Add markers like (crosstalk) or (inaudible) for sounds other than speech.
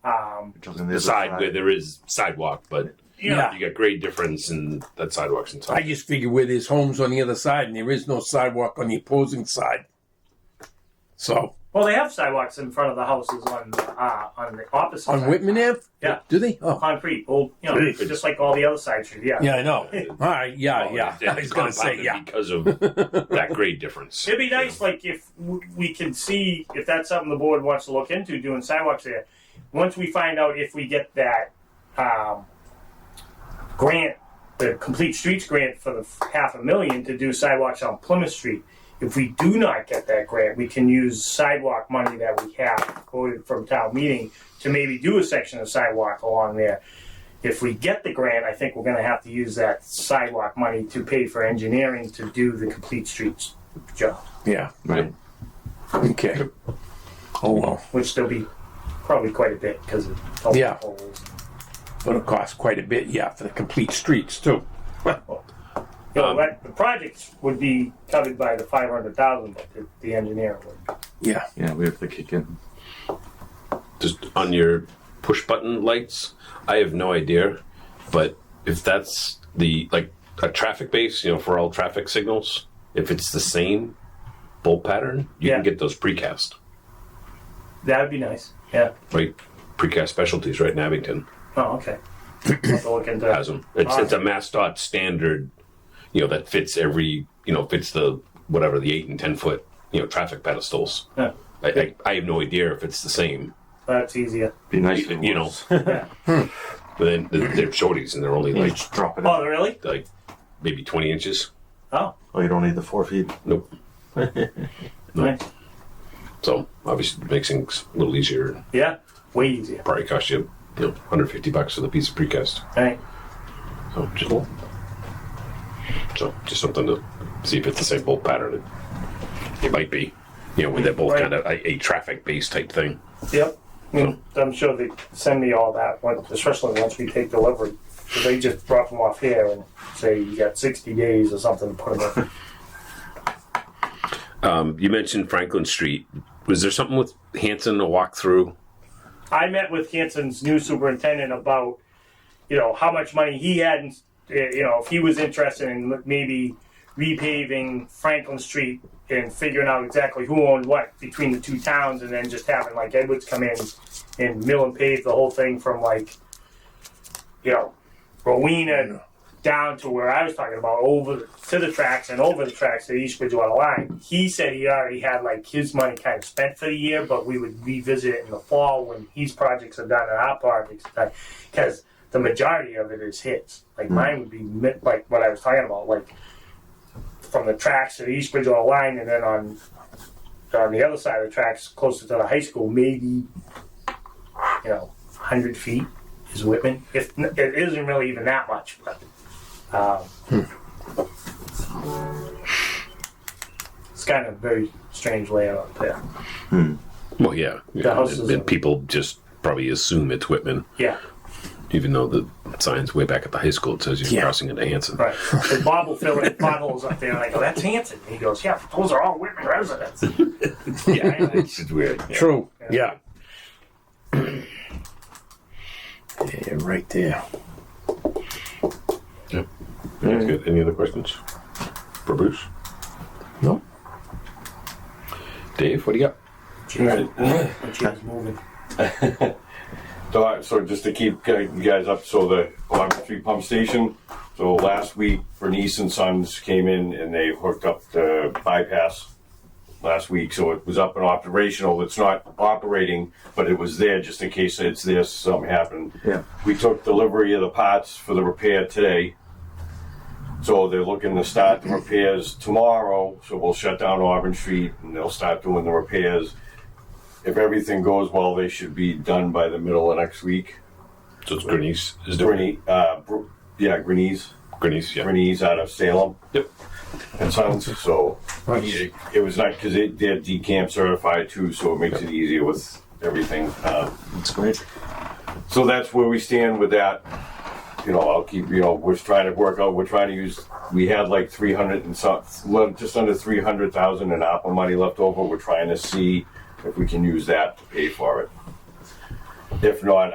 Um, on the the other side side. where there is sidewalk, but you, Yeah. know, you got great difference in that sidewalks and I stuff. just figure where there's homes on the other side and there is no sidewalk on the opposing side. So Well, they have sidewalks in front of the houses on uh, on the opposite on side. Whitman Ave, Yeah. do they? Oh, concrete, old, you know, Really? just like all the other side streets. Yeah. yeah, I know. All right, yeah, Oh, uh, yeah. and- and (laughs) I was gonna say compounded yeah. (laughs) because of that grade difference. It'd be nice, like if w- we can see if that's something the board wants to look into doing sidewalks there. Once we find out if we get that um, grant, the complete streets grant for the f- half a million to do sidewalks on Plymouth Street. If we do not get that grant, we can use sidewalk money that we have quoted from town meeting to maybe do a section of sidewalk along there. If we get the grant, I think we're going to have to use that sidewalk money to pay for engineering to do the complete streets job. Yeah. Right. Okay. Oh well. which there'll be probably quite a bit because of all Yeah. the holes. But it costs quite a bit, yeah, for the complete streets too. You know, Um, that- the projects would be covered by the five hundred thousand, but the, the engineer would. Yeah. Yeah, we have to kick in. Just on your push button lights, I have no idea, but if that's the like a traffic base, you know, for all traffic signals, if it's the same bolt pattern, you Yeah. can get those precast, That would be nice. Yeah. right? Precast specialties right in Abington. Oh, okay. I'll have to look into has that. 'em. It's, it's a MassDOT standard, you know, that fits every, you know, fits the whatever the eight and ten foot, you know, traffic pedestals. Yeah. I, I, I have no idea if it's the same. That's easier. Be nice, You, you (laughs) know, Yeah. but then they're, they're shorties and they're only you like just drop it. Oh, In. really? like maybe twenty inches. Oh, Oh, you don't need the four feet. Nope. nice. So obviously it makes things a little easier. Yeah. Way easier. Probably cost you, you know, 150 bucks for the piece of precast. All right. So just, so just something to see if it's the same bolt pattern. It, it might be. You know, when they're both Right. kind of a, a traffic based type thing. Yep. Mm, I'm sure they send me all that, once- especially once we take delivery. 'Cause They just drop them off here and say you got 60 days or something to put them in. Um, you mentioned Franklin Street. Was there something with Hanson to walk through? I met with Hanson's new superintendent about, you know, how much money he had, in, uh, you know, if he was interested in maybe repaving Franklin Street and figuring out exactly who owned what between the two towns, and then just having like Edwards come in and mill and pave the whole thing from like, you know, Rowena down to where I was talking about over to the tracks and over the tracks to the East Bridgewater line. He said he already had like his money kind of spent for the year, but we would revisit it in the fall when his projects are done and our projects are done because the majority of it is his. Like mine would be mi- like what I was talking about, like from the tracks to the East Bridgewater line and then on on the other side of the tracks closer to the high school, maybe you know, 100 feet is Whitman. If it isn't really even that much, but um, it's kind of a very strange layout there. Well, yeah. The house and, is and a- people just probably assume it's Whitman, Yeah, even though the sign's way back at the high school it says you're Yeah. crossing into Hanson. right. The Bob will fill in potholes up there, and I go, "That's Hanson." And he goes, "Yeah, those are all Whitman residents." (laughs) Yeah, it's just weird. Yeah. True. Yeah. Yeah, right there. That's good. Any other questions for Bruce? No. Dave, what do you got? When she was moving. So, I- so just to keep uh, you guys up, so the Climate Street Pump Station, so last week Bernice and Sons came in and they hooked up the bypass last week, so it was up and operational. It's not operating, but it was there just in case it's there, something happened. Yeah. We took delivery of the parts for the repair today. So they're looking to start the repairs tomorrow, so we'll shut down Auburn Street and they'll start doing the repairs. If everything goes well, they should be done by the middle of next week. So it's Grenese. Is there Grenese, uh, Br- yeah, Grenese, Grenese, yeah. Grenese out of Salem. Yep. And Sons, so it, it was nice because they, they're decamp certified too, so it makes it easier with everything. Um, That's great. so that's where we stand with that. You know, I'll keep, you know, we're trying to work out, we're trying to use, we had like three hundred and some, le- just under three hundred thousand in ARPA money left over. We're trying to see if we can use that to pay for it. If not,